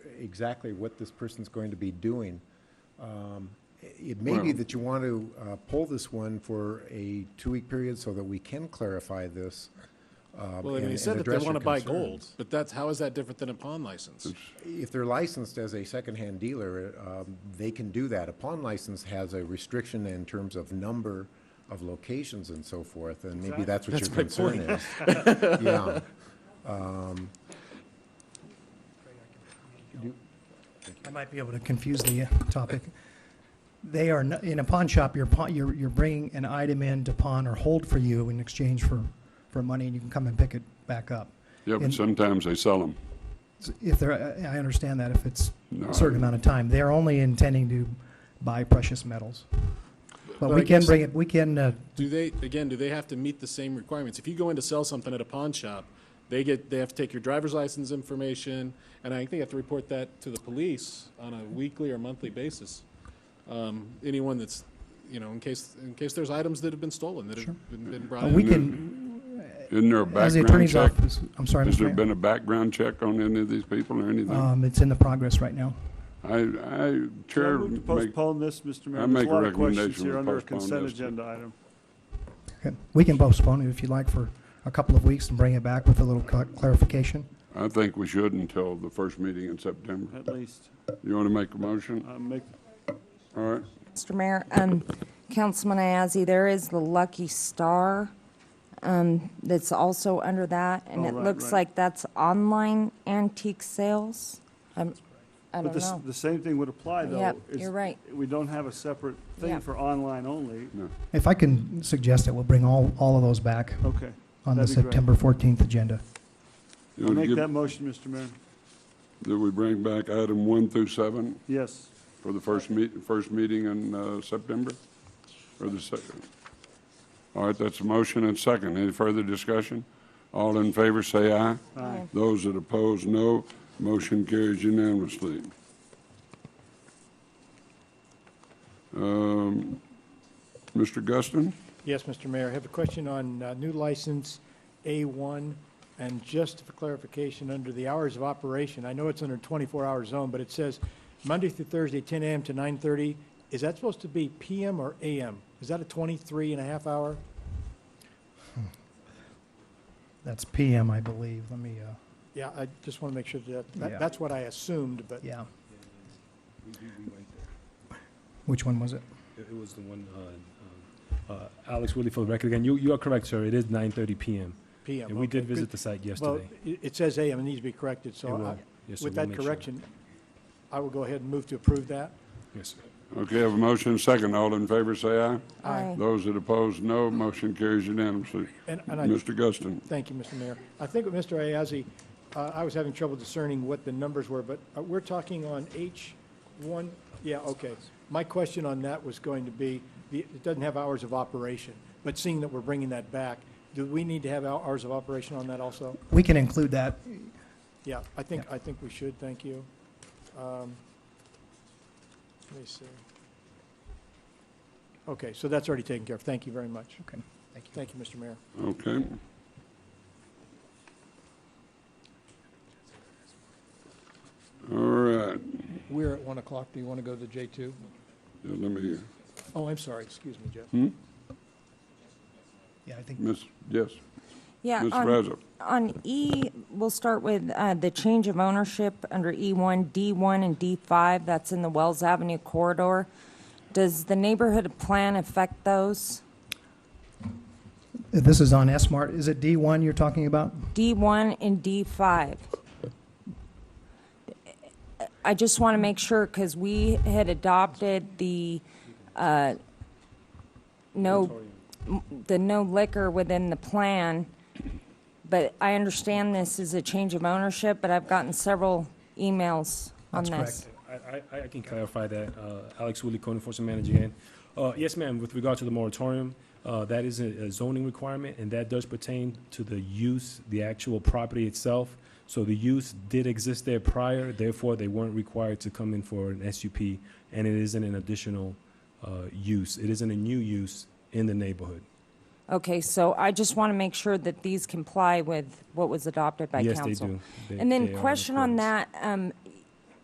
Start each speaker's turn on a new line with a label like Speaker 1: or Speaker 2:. Speaker 1: exactly what this person's going to be doing. Um, It may be that you want to uh, pull this one for a two-week period so that we can clarify this. um,
Speaker 2: Well, I mean,
Speaker 1: and-
Speaker 2: he
Speaker 1: and
Speaker 2: said that they
Speaker 1: address your
Speaker 2: want to buy
Speaker 1: concerns.
Speaker 2: gold, but that's, how is that different than a pawn license?
Speaker 1: If they're licensed as a secondhand dealer, um, they can do that. A pawn license has a restriction in terms of number of locations and so forth, and maybe that's what your
Speaker 2: That's my
Speaker 1: concern is. Yeah.
Speaker 3: I might be able to confuse the uh, topic. They are, no- in a pawn shop, you're pawn, you're, you're bringing an item in to pawn or hold for you in exchange for, for money, and you can come and pick it back up.
Speaker 4: Yeah, but
Speaker 3: And-
Speaker 4: sometimes they sell them.
Speaker 3: So If they're, I I understand that if it's
Speaker 4: No.
Speaker 3: a certain amount of time, they're only intending to buy precious metals. But
Speaker 2: But I
Speaker 3: we can
Speaker 2: guess-
Speaker 3: bring it, we can, uh,
Speaker 2: Do they, again, do they have to meet the same requirements? If you go in to sell something at a pawn shop, they get, they have to take your driver's license information, and I think they have to report that to the police on a weekly or monthly basis. Um, Anyone that's, you know, in case, in case there's items that have been stolen, that have been been brought in.
Speaker 3: we can,
Speaker 4: Isn't there a
Speaker 3: as the
Speaker 4: background
Speaker 3: attorney's
Speaker 4: check?
Speaker 3: office, I'm sorry,
Speaker 4: Has
Speaker 3: Mr.
Speaker 4: there
Speaker 3: Mayor.
Speaker 4: been a background check on any of these people or anything?
Speaker 3: Um, it's in the progress right now.
Speaker 4: I, I,
Speaker 5: Can I
Speaker 4: Chair,
Speaker 5: move to
Speaker 4: make-
Speaker 5: postpone this, Mr.
Speaker 4: I
Speaker 5: Mayor? There's
Speaker 4: make
Speaker 5: a
Speaker 4: a
Speaker 5: lot of questions
Speaker 4: recommendation we
Speaker 5: here under a
Speaker 4: postpone
Speaker 5: consent
Speaker 4: this.
Speaker 5: agenda item.
Speaker 3: Okay. We can postpone it if you like for a couple of weeks and bring it back with a little cla- clarification.
Speaker 4: I think we should until the first meeting in September.
Speaker 5: At least,
Speaker 4: You want to make a motion?
Speaker 5: I make,
Speaker 4: All right.
Speaker 6: Mr. Mayor, um, Councilman Ayazi, there is the Lucky Star, um, that's also under that, and
Speaker 5: Oh,
Speaker 6: it
Speaker 5: right,
Speaker 6: looks
Speaker 5: right.
Speaker 6: like that's online antique sales. Um, I
Speaker 5: but
Speaker 6: don't
Speaker 5: this,
Speaker 6: know.
Speaker 5: the same thing would apply, though.
Speaker 6: Yep,
Speaker 5: is
Speaker 6: you're right.
Speaker 5: We don't have a separate thing
Speaker 6: Yep.
Speaker 5: for online only.
Speaker 3: If I can suggest it, we'll bring all, all of those back
Speaker 5: Okay.
Speaker 3: on the
Speaker 5: Oh, That'd be great.
Speaker 3: September 14th agenda.
Speaker 4: You
Speaker 5: I'll
Speaker 4: wanna
Speaker 5: make
Speaker 4: give-
Speaker 5: that motion, Mr. Mayor.
Speaker 4: That we bring back item one through seven
Speaker 5: Yes.
Speaker 4: for the first meet, first meeting in, uh, September? Or the second? All right, that's a motion and second. Any further discussion? All in favor, say aye.
Speaker 6: Aye.
Speaker 4: Those that oppose, no. Motion carries unanimously. Um, Mr. Guston?
Speaker 7: Yes, Mr. Mayor, I have a question on uh, new license A1, and just for clarification, under the hours of operation, I know it's under 24-hour zone, but it says Monday through Thursday, 10 AM to 9:30. Is that supposed to be PM or AM? Is that a 23 and a half hour?
Speaker 3: That's PM, I believe. Let me, uh,
Speaker 7: Yeah, I just want to make sure that,
Speaker 3: Yeah.
Speaker 7: that- that's what I assumed, but
Speaker 3: yeah. Which one was it?
Speaker 8: It it was the one, uh, uh, uh, Alex Willie for the record again. You, you are correct, sir. It is 9:30 PM.
Speaker 7: PM.
Speaker 8: And we did
Speaker 7: okay.
Speaker 8: visit the site
Speaker 7: Well,
Speaker 8: yesterday.
Speaker 7: it it says AM, it needs to be corrected,
Speaker 8: It
Speaker 7: so
Speaker 8: will.
Speaker 7: I-
Speaker 8: Yes, sir,
Speaker 7: with
Speaker 8: we'll
Speaker 7: that
Speaker 8: make sure.
Speaker 7: correction, I will go ahead and move to approve that.
Speaker 8: Yes, sir.
Speaker 4: Okay, have a motion second. All in favor, say aye.
Speaker 6: Aye.
Speaker 4: Those that oppose, no. Motion carries unanimously.
Speaker 7: And- and I-
Speaker 4: Mr. Guston?
Speaker 7: Thank you, Mr. Mayor. I think with Mr. Ayazi, uh, I was having trouble discerning what the numbers were, but uh, we're talking on H1, yeah, okay. My question on that was going to be, the- it doesn't have hours of operation, but seeing that we're bringing that back, do we need to have hou- hours of operation on that also?
Speaker 3: We can include that.
Speaker 7: Yeah, I think, I think we should, thank you. Um, Let me see. Okay, so that's already taken care of, thank you very much.
Speaker 3: Okay. Thank you.
Speaker 7: Thank you, Mr. Mayor.
Speaker 4: Okay. All right,
Speaker 7: We're at 1 o'clock, do you want to go to J2?
Speaker 4: Yeah, let me,
Speaker 7: Oh, I'm sorry, excuse me, Jeff.
Speaker 3: Yeah, I think
Speaker 4: Miss, yes,
Speaker 6: Yeah,
Speaker 4: Ms.
Speaker 6: on-
Speaker 4: Raza.
Speaker 6: On E, we'll start with uh, the change of ownership under E E1, D1, and D5. That's in the Wells Avenue corridor. Does the neighborhood plan affect those?
Speaker 3: this is on S-Mart. Is it D1 you're talking about?
Speaker 6: D1 and D5. I just want to make sure, because we had adopted the uh, no, the no liquor within the plan, but I understand this is a change of ownership, but I've gotten several emails on
Speaker 3: That's
Speaker 6: this.
Speaker 8: I, I, I can clarify that. Uh, Alex Willie, code enforcement manager again. Uh, yes, ma'am, with regard to the moratorium, uh, that is a a zoning requirement, and that does pertain to the use, the actual property itself. So the use did exist there prior, therefore they weren't required to come in for an SUP, and it isn't an additional, uh, use. It isn't a new use in the neighborhood.
Speaker 6: Okay, so I just want to make sure that these comply with what was adopted by
Speaker 8: Yes,
Speaker 6: council.
Speaker 8: they do. They-
Speaker 6: And
Speaker 8: they are
Speaker 6: then
Speaker 8: in
Speaker 6: question on
Speaker 8: accordance.
Speaker 6: that, um,